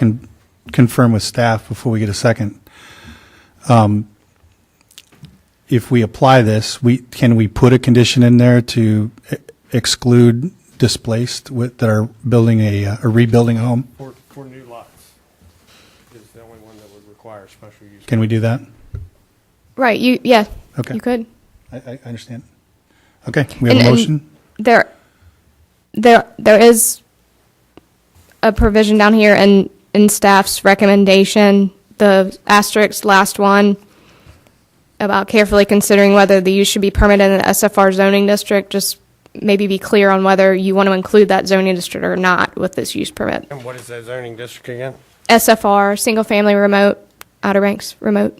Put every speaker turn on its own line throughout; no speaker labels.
can confirm with staff before we get a second. Um, If we apply this, we, can we put a condition in there to e- exclude displaced with, that are building a, uh, or rebuilding a home?
For, for new lots is the only one that would require special use.
Can we do that?
Right. You yeah.
Okay.
You could.
I, I I understand. Okay, we have
And-
a
and-
motion?
There there there is a provision down here in in staff's recommendation, the asterisk last one about carefully considering whether the use should be permitted in the SFR zoning district, just maybe be clear on whether you want to include that zoning district or not with this use permit.
And what is that zoning district again?
SFR, single family remote, Outer Banks remote.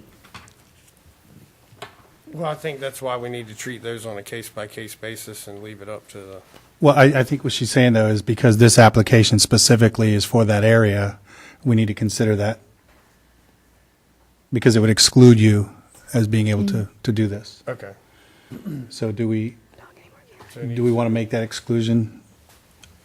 Well, I think that's why we need to treat those on a case-by-case basis and leave it up to the,
Well, I, I think what she's saying though is because this application specifically is for that area, we need to consider that. Because it would exclude you as being able to,
Mm.
to do this.
okay.
So do we,
So
do we want to make that exclusion?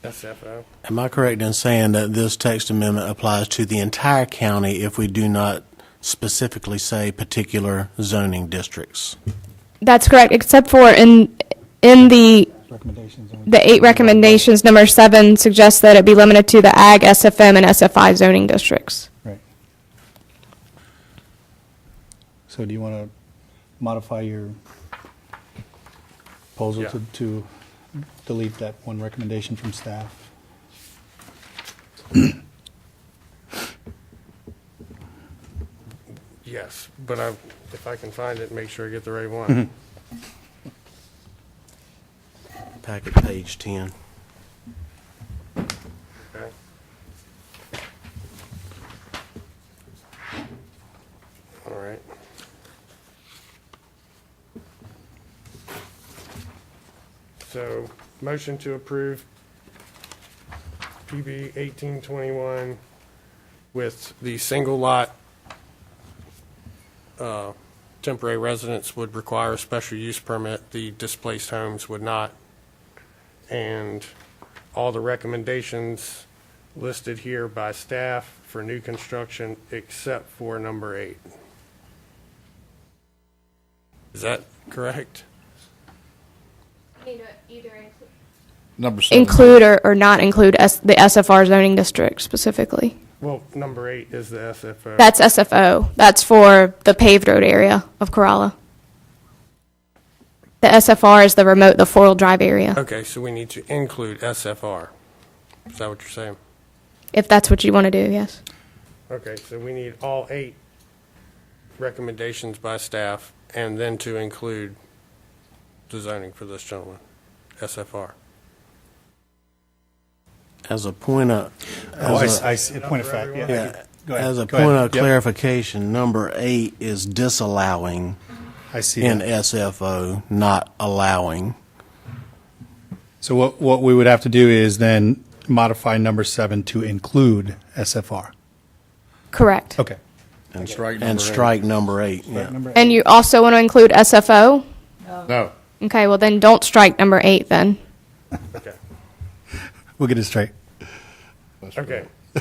SFO.
Am I correct in saying that this text amendment applies to the entire county if we do not specifically say particular zoning districts?
That's correct, except for in in the
Recommendations on-
The eight recommendations, number seven suggests that it be limited to the ag, SFM, and SFI zoning districts.
Right. So do you want to modify your proposal
Yeah.
to, to delete that one recommendation from staff?
Yes, but I, if I can find it, make sure I get the right one.
Packet page 10.
Okay. All right. So, motion to approve PB eighteen twenty-one with the single lot, uh, temporary residence would require a special use permit, the displaced homes would not. And all the recommendations listed here by staff for new construction except for number eight. Is that correct?
Number seven.
Include or, or not include S, the SFR zoning district specifically.
Well, number eight is the SFO.
That's SFO. That's for the paved road area of Corolla. The SFR is the remote, the four-wheel drive area,
Okay, so we need to include SFR. Is that what you're saying?
if that's what you want to do, yes.
Okay, so we need all eight recommendations by staff and then to include the zoning for this gentleman, SFR.
As a point of,
Oh,
as a-
I, see, point of fact, yeah.
yeah,
Go ahead,
as a
go ahead.
point of
Yep.
clarification, number eight is disallowing
I see
in
that.
SFO, not allowing.
So what, what we would have to do is then modify number seven to include SFR.
Correct.
Okay.
And
strike
And
number eight.
strike number eight, yeah.
Number
And you also want to include SFO?
No.
Okay, well then don't strike number eight then.
Okay,
We'll get it straight.
okay.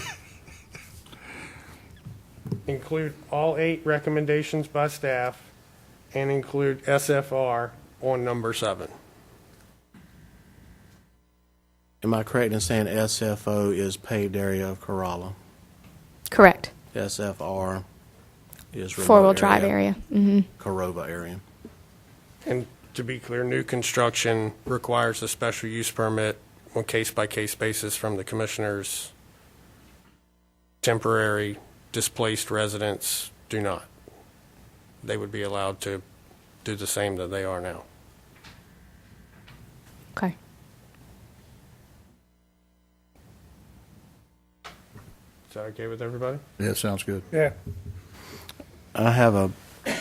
Include all eight recommendations by staff and include SFR on number seven.
Am I correct in saying SFO is paved area of Corolla?
Correct.
SFR is remote
Four-wheel drive area. Mm-hmm.
Corova area.
And to be clear, new construction requires a special use permit on case-by-case basis from the commissioners. Temporary displaced residents do not. They would be allowed to do the same that they are now.
Okay.
Is that okay with everybody?
Yeah, sounds good.
Yeah.
I have a, I-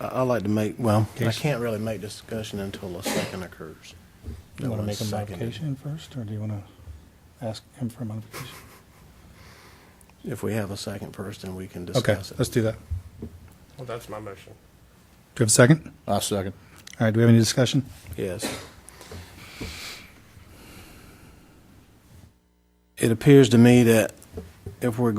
I'd like to make, well, I can't really make discussion until a second occurs.
Do you want to
That
make a
was seconded.
modification first, or do you want to ask him for a modification?
If we have a second first, then we can
Okay,
discuss it.
let's do that. Do
Well, that's my motion.
you have a second?
I second.
All right, do we have any discussion?
Yes. It appears to me that if we're